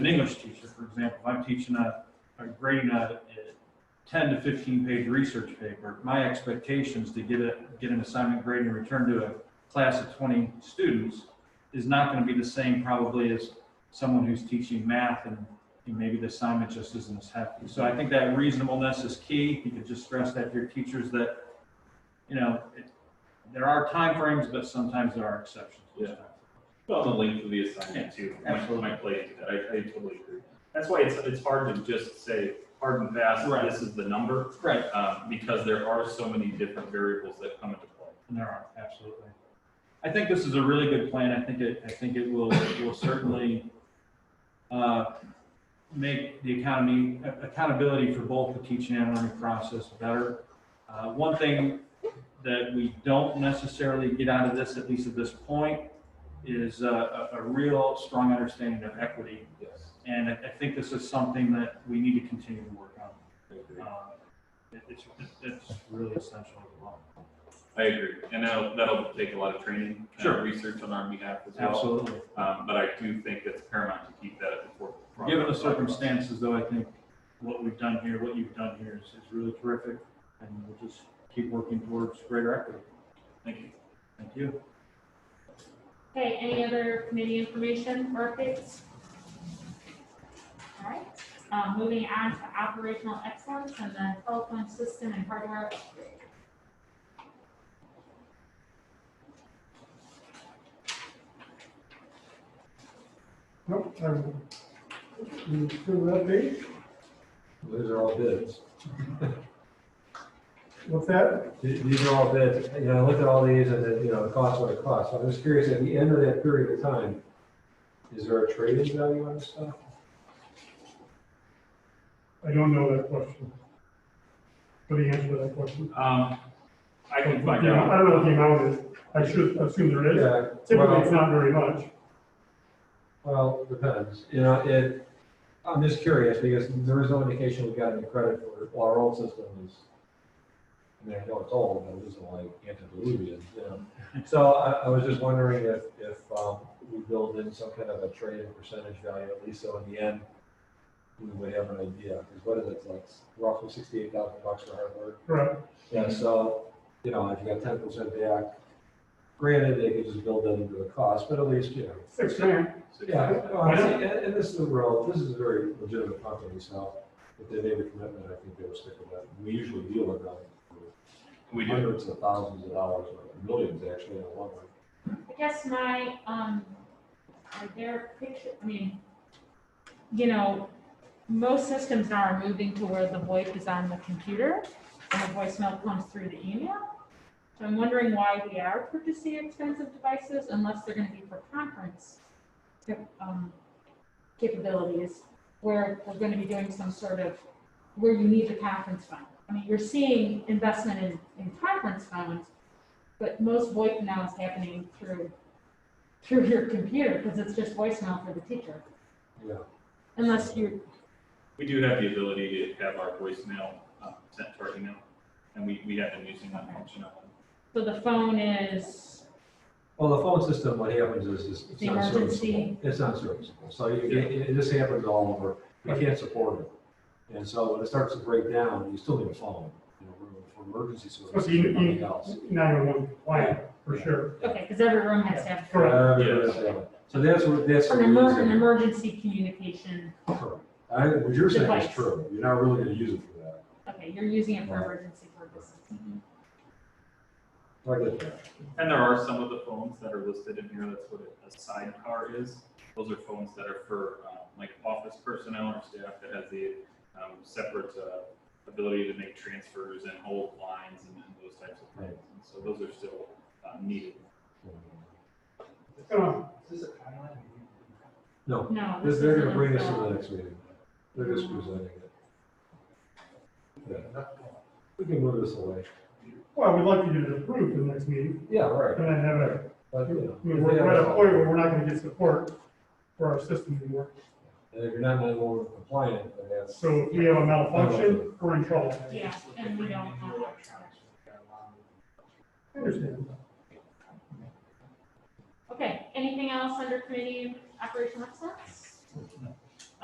an English teacher, for example, if I'm teaching a, a grade, a a ten to fifteen page research paper, my expectations to get a, get an assignment grade and return to a class of twenty students is not gonna be the same probably as someone who's teaching math and and maybe the assignment just isn't as hefty. So I think that reasonableness is key. You could just stress that to your teachers that, you know, it- there are timeframes, but sometimes there are exceptions. Yeah. Well, the length of the assignment too, might, absolutely. might play into that, I, I totally agree. That's why it's, it's hard to just say hard and fast, Right. this is the number, Right, um, because there are so many different variables that come into play. and there are, absolutely. I think this is a really good plan. I think it, I think it will, it will certainly uh, make the economy, accountability for both the teaching and learning process better. Uh, One thing that we don't necessarily get out of this, at least at this point, is uh, a, a real strong understanding of equity. Yes. And I, I think this is something that we need to continue to work on. I agree. Uh, Um, it- It's, it's really essential as well. I agree, and that'll, that'll take a lot of training. uh, Sure. Research on our behalf as well. Absolutely. Um, but I do think it's paramount to keep that at the forefront. Given the circumstances, though, I think what we've done here, what you've done here is, is really terrific, and we'll just keep working towards greater equity. Thank you. Thank you. Okay, any other committee information or updates? All right, um, moving on to operational excellence and the telephone system and hardware. upgrade. Nope, I'm, you approve that date? Those are all bids. What's that? Th- These are all bids. You know, I looked at all these and then, you know, the cost what it costs. So I'm just curious, at the end of that period of time, is there a trading value on this stuff? I don't know that question. What do you answer to that question? Um, I can I find out. don't know what the amount is. I should assume there is. Yeah, Typically, it's well, not very much. well, depends. You know, it, I'm just curious because there is no indication we got any credit for, well, our old system is, I mean, I know it's old, but it isn't like antediluvian, you know. So I, I was just wondering if, if, um, we build in some kind of a trade-in percentage value, at least so in the end, we would have an idea, because what is it, it's like roughly sixty-eight thousand bucks for hardware? Correct. Yeah, so, you know, if you got ten percent back, granted, they could just build that into the cost, but at least, you know. Six grand. Yeah, honestly, and, and this is a real, this is a very legitimate company, so if they made a commitment, I think they would stick with that. We usually deal with them We for do. hundreds of thousands of dollars, or millions actually, in a long run. I guess my, um, are there picture, I mean, you know, most systems now are moving to where the VoIP is on the computer and the voicemail comes through the email. So I'm wondering why we are purchasing expensive devices unless they're gonna be for conference cap- um, capabilities, where we're gonna be doing some sort of, where you need the conference fund. I mean, you're seeing investment in, in conference funds, but most VoIP now is happening through, through your computer, because it's just voicemail for the teacher, Yeah. unless you're, We do have the ability to have our voicemail uh, sent to our email, and we, we have been using that functionality. so the phone is, Well, the phone system, what happens is, is it's The not serviceable. emergency. It's not serviceable, so you- Yeah. it, it, this happens all over, you can't support it. And so when it starts to break down, you still need a phone, you know, for for emergency service, Especially you- nothing you- else. Nine-one-one compliant, for sure. okay, because every room has to have. Correct. Uh, So that's what, that's. An what we emer, use it. an emergency communication, Correct. I, what you're saying is Device. true, you're not really gonna use it for that. okay, you're using it for emergency purposes. I get that. And there are some of the phones that are listed in here, that's what a sidecar is. Those are phones that are for um, like office personnel or staff that has the um, separate uh, ability to make transfers and hold lines and and those types of things. And So those are still uh, needed. Uh, No, No. this- they're gonna bring this isn't to a the phone. next meeting, they're just presenting it. Yeah. We can move this away, Well, we'd like you to approve the next meeting, yeah, and right. then have a, But, I you mean, know, we're we're at a point where we're not gonna get support for our system anymore. And if you're not nine one compliant, then that's. So if we have a malfunction, we're in trouble. Yeah, and we don't have. I understand. Okay, anything else under committee operational excellence?